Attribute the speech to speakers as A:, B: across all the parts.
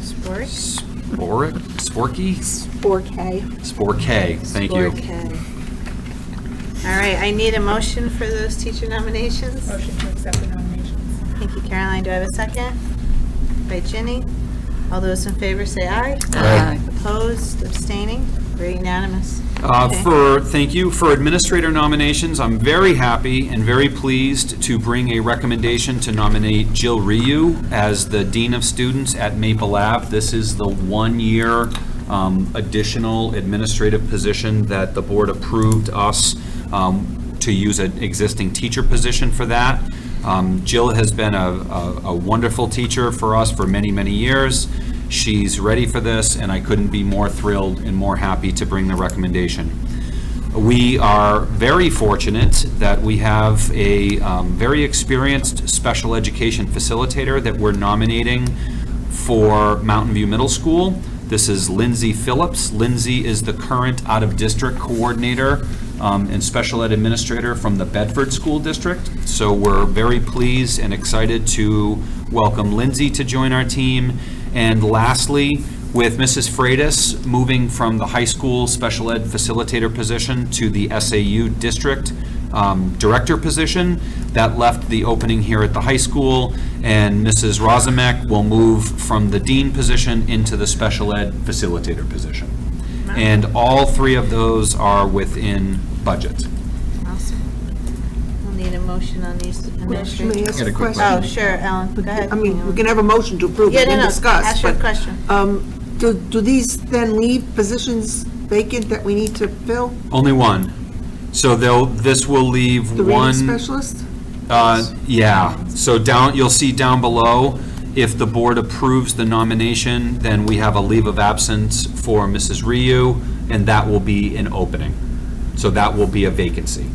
A: Sport?
B: Sporic, Sporky,
A: Four K.
B: Spor K, thank you.
A: Sport K. All right, I need a motion for those teacher nominations.
C: Motion to accept the nominations.
A: Thank you, Caroline. Do I have a second? By Ginny. All those in favor say aye.
B: Aye.
A: Opposed, abstaining, we're unanimous.
B: Uh,
A: Okay.
B: For, thank you, for administrator nominations, I'm very happy and very pleased to bring a recommendation to nominate Jill Ryu as the Dean of Students at Maple Lab. This is the one-year um, additional administrative position that the board approved us um, to use an existing teacher position for that. Um, Jill has been a- a a wonderful teacher for us for many, many years. She's ready for this, and I couldn't be more thrilled and more happy to bring the recommendation. We are very fortunate that we have a um, very experienced special education facilitator that we're nominating for Mountain View Middle School. This is Lindsay Phillips. Lindsay is the current out-of-district coordinator um, and special ed administrator from the Bedford School District. So we're very pleased and excited to welcome Lindsay to join our team. And lastly, with Mrs. Freitas moving from the high school special ed facilitator position to the SAU district um, director position, that left the opening here at the high school, and Mrs. Rosamek will move from the dean position into the special ed facilitator position. And all three of those are within budget.
A: Awesome. We'll need a motion on these
D: May I
A: administrators.
D: ask a
A: Oh,
D: question?
A: sure, Ellen, go ahead.
D: I mean, we can have a motion to approve
A: Yeah,
D: it
A: no,
D: and
A: no,
D: discuss.
A: ask your
D: but,
A: question.
D: um, Do, do these then leave positions vacant that we need to fill?
B: Only one. So they'll, this will leave
D: The
B: one.
D: reading specialist?
B: Uh, Yeah, so down, you'll see down below, if the board approves the nomination, then we have a leave of absence for Mrs. Ryu, and that will be an opening. So that will be a vacancy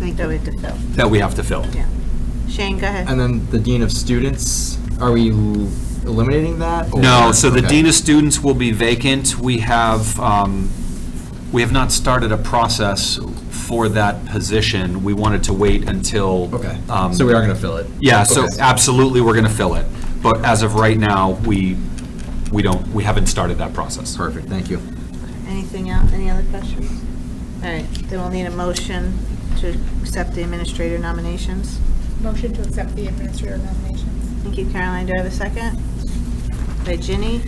D: Thank
A: That we
D: you.
A: have to fill,
B: that we have to fill.
A: yeah. Shane, go ahead.
E: And then the dean of students, are we l- eliminating that? or-
B: No, so the
E: Oh, Okay.
B: dean of students will be vacant. We have, um, we have not started a process for that position. We wanted to wait until.
E: Okay,
B: um,
E: so we are going to fill it.
B: Yeah, so
E: Okay.
B: absolutely, we're going to fill it. But as of right now, we, we don't, we haven't started that process.
E: Perfect, thank you.
A: Anything else, any other questions? All right, then we'll need a motion to accept the administrator nominations.
C: Motion to accept the administrator nominations.
A: Thank you, Caroline. Do I have a second? By Ginny.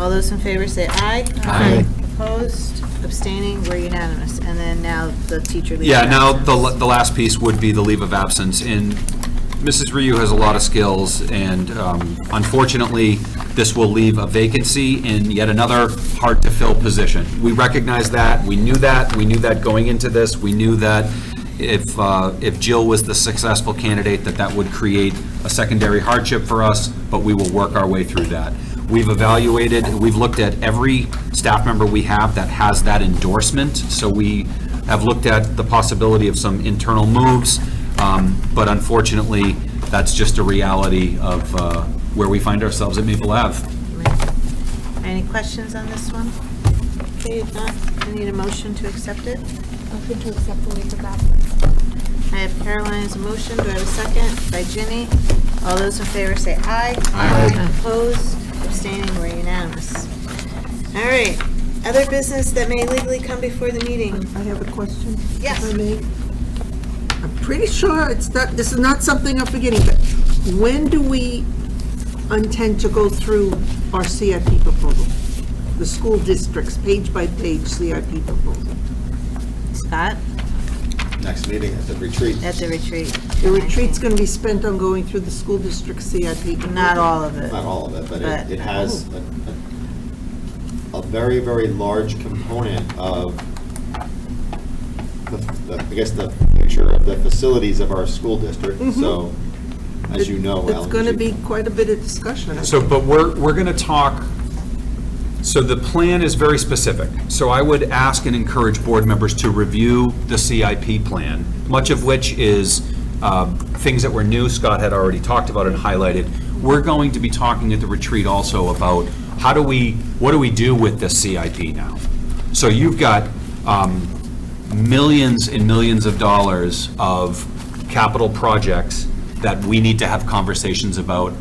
A: All those in favor say aye.
B: Aye.
A: Opposed, abstaining, we're unanimous. And then now the teacher leader.
B: Yeah, now, the, la-
A: absence.
B: the last piece would be the leave of absence, and Mrs. Ryu has a lot of skills, and um, unfortunately, this will leave a vacancy in yet another hard-to-fill position. We recognize that, we knew that, we knew that going into this, we knew that if, uh, if Jill was the successful candidate, that that would create a secondary hardship for us, but we will work our way through that. We've evaluated, we've looked at every staff member we have that has that endorsement, so we have looked at the possibility of some internal moves, um, but unfortunately, that's just a reality of uh, where we find ourselves at Maple Ave.
A: Any questions on this one? Okay, if not, I need a motion to accept it.
C: Motion to accept the leave of absence.
A: I have Caroline's motion. Do I have a second? By Ginny. All those in favor say aye. Aye. Opposed, abstaining, we're unanimous. All right, other business that may legally come before the meeting.
D: I have a question. if
A: Yes.
D: I may. I'm pretty sure it's not, this is not something I'm forgetting, but when do we intend to go through our CIP proposal? The school districts, page by page CIP proposal?
A: Scott,
F: next meeting at the retreat.
A: at the retreat.
D: The retreat's going to be spent on going through the school district CIP.
A: Not all of it.
F: Not all of it, but
A: But-
F: it- it has a- a a very, very large component of, the- the- I guess, the picture of the facilities of our school district. So, as you know, Alan.
D: Mm-hmm. It's going to
F: you-
D: be quite a bit of discussion.
B: So, but we're, we're going to talk, so the plan is very specific. So I would ask and encourage board members to review the CIP plan, much of which is um, things that were new, Scott had already talked about and highlighted. We're going to be talking at the retreat also about how do we, what do we do with the CIP now? So you've got um, millions and millions of dollars of capital projects that we need to have conversations about